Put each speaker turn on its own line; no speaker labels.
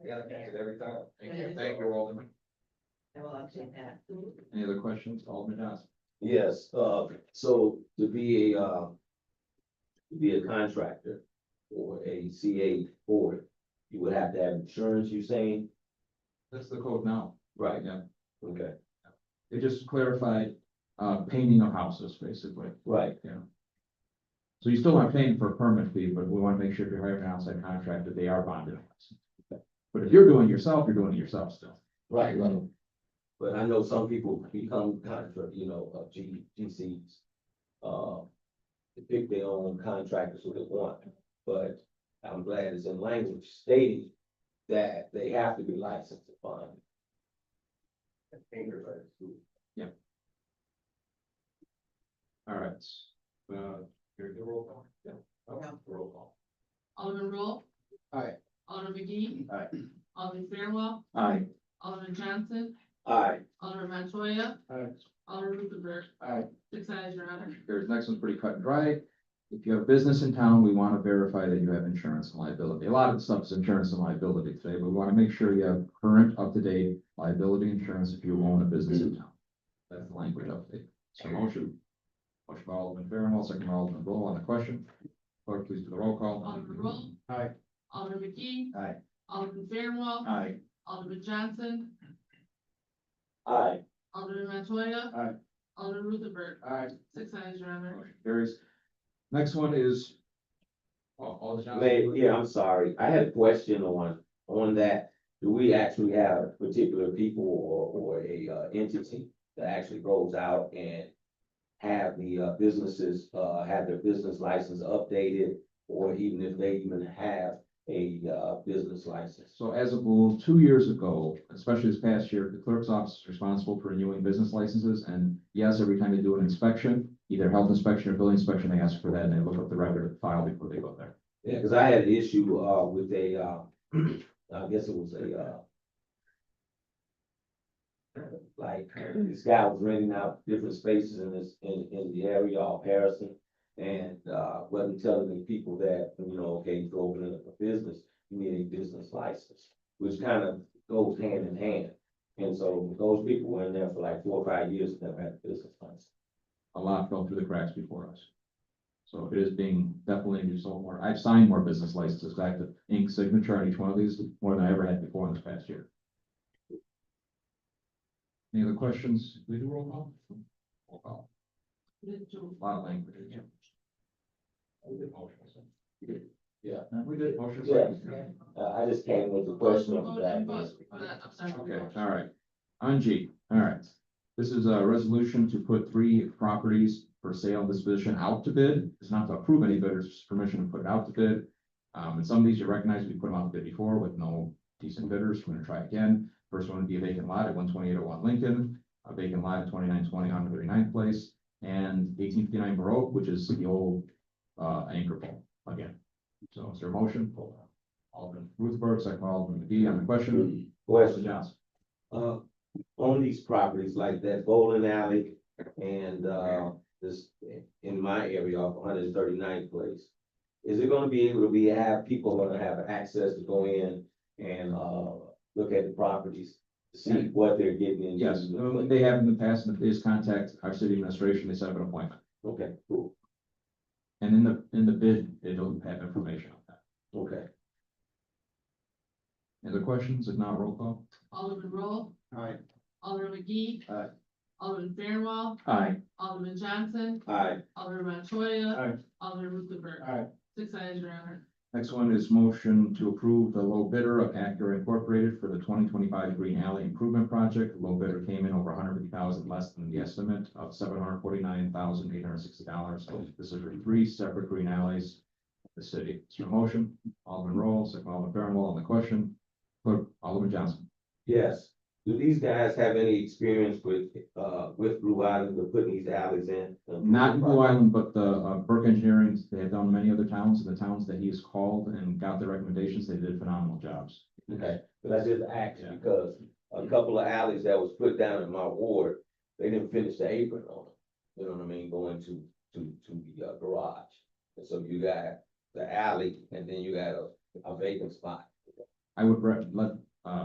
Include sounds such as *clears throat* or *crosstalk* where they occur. I gotta catch it every time.
Thank you.
Thank you, Alderman.
I will update that.
Any other questions, Alderman Johnson?
Yes, uh, so to be a, uh. to Be a contractor or a CA board, you would have to have insurance, you're saying?
That's the code now, right
Right,
now.
okay,
They just clarified, uh, painting of houses, basically.
right,
So you still aren't paying for a permit fee, but we wanna make sure if you're hiring an outside contractor, they are bonded. But if you're doing it yourself, you're doing it yourself still.
right, right. But I know some people become contract, you know, uh, G, GCs. Uh, to pick their own contractors who they want, but I'm glad it's in language stating that they have to be licensed to fund.
All right. Uh, here's the roll call. Yeah.
Yeah.
Roll call.
Alderman Roll.
Aye.
Alderman McGee.
Aye.
Alderman Fairwell,
Aye.
Alderman Johnson,
Aye.
Alderman Montoya,
Aye.
Alderman Ruthenberg,
Aye.
six eyes, your honor.
Here's, next one's pretty cut and dry. If you have business in town, we want to verify that you have insurance and liability. A lot of stuff's insurance and liability today, but we want to make sure you have current, up-to-date liability insurance if you own a business in town. That's the language update. So motion. Motion by Alderman Fairwell, second by Alderman Roll on the question. Clerk, please do the roll call.
Alderman Roll.
Aye.
Alderman McGee.
Aye.
Alderman Fairwell,
Aye.
Alderman Johnson,
Aye.
Alderman Montoya.
Aye.
Alderman Ruthenberg,
Aye.
six eyes, your honor.
Motion carries. Next one is. Oh, Alderman Johnson.
May- yeah, I'm sorry, I had a question on, on that, do we actually have particular people or, or a uh, entity that actually goes out and have the uh, businesses, uh, have their business license updated, or even if they even have a, uh, business license?
So as a rule, two years ago, especially this past year, the clerk's office is responsible for renewing business licenses. And yes, every time they do an inspection, either health inspection or building inspection, they ask for that and they look up the record file before they go there.
Yeah, cause I had an issue, uh, with a, uh, *clears throat* I guess it was a, uh. Like, this guy was renting out different spaces in this, in, in the area of Harrison. And, uh, wasn't telling the people that, you know, okay, you go open up a business, you need a business license, which kind of goes hand in hand. And so those people were in there for like four or five years, and never had a business license.
A lot fell through the cracks before us. So it is being definitely just sold more. I've signed more business licenses, I have to ink signature on each one of these more than I ever had before in this past year. Any other questions? We do roll call? Roll call.
Mitchell,
A lot of language. We did motion. Yeah. We did motion.
Yeah.
second.
Uh, I just came with a question of
Vote and
that.
vote. Uh, I'm sorry.
Okay, all right. On G, all right. This is a resolution to put three properties for sale and disposition out to bid. It's not to approve any bidders, it's permission to put it out to bid. Um, and some of these you recognize, we put them out to bid before with no decent bidders. We're gonna try again. First one would be a vacant lot at one twenty-eight oh one Lincoln, a vacant lot at twenty-nine twenty on 39th Place, and eighteen fifty-nine Baroque, which is the old, uh, anchor pole again. So is there a motion? Alderman Ruthberg, second by Alderman McGee on the question.
Question.
Johnson.
uh, on these properties like that bowling alley and, uh, this, in my area off 139th place. Is it gonna be able to be, have people gonna have access to go in and, uh, look at the properties? See what they're getting into?
Yes, um, they have in the past, and if they just contact our city administration, they set up an appointment.
Okay, cool,
And in the, in the bid, it'll have information on that.
okay.
Any other questions? If not, roll call.
Alderman Roll,
Aye.
Alderman McGee.
Aye.
Alderman Fairwell,
Aye.
Alderman Johnson,
Aye,
Alderman Montoya.
Aye.
Alderman Ruthenberg.
Aye.
Six eyes, your honor.
Next one is motion to approve the low bidder of Acura Incorporated for the twenty twenty-five Green Alley Improvement Project. Low bidder came in over hundred fifty thousand less than the estimate of seven hundred forty-nine thousand eight hundred sixty dollars. This is for three separate green alleys. in The city. It's your motion. Alderman Roll, second by Alderman Fairwell on the question. Clerk, Alderman Johnson.
yes. Do these guys have any experience with, uh, with Blue Island, with putting these alleys in?
Not in Blue Island, but the uh, Burke Engineering, they have done many other towns, and the towns that he has called and got their recommendations, they did phenomenal jobs.
Okay, but I just asked
Yeah.
because a couple of alleys that was put down in my ward, they didn't finish the apron on them. You know what I mean, going to, to, to the uh, garage. And so you got the alley and then you got a, a vacant spot.
I would re- let,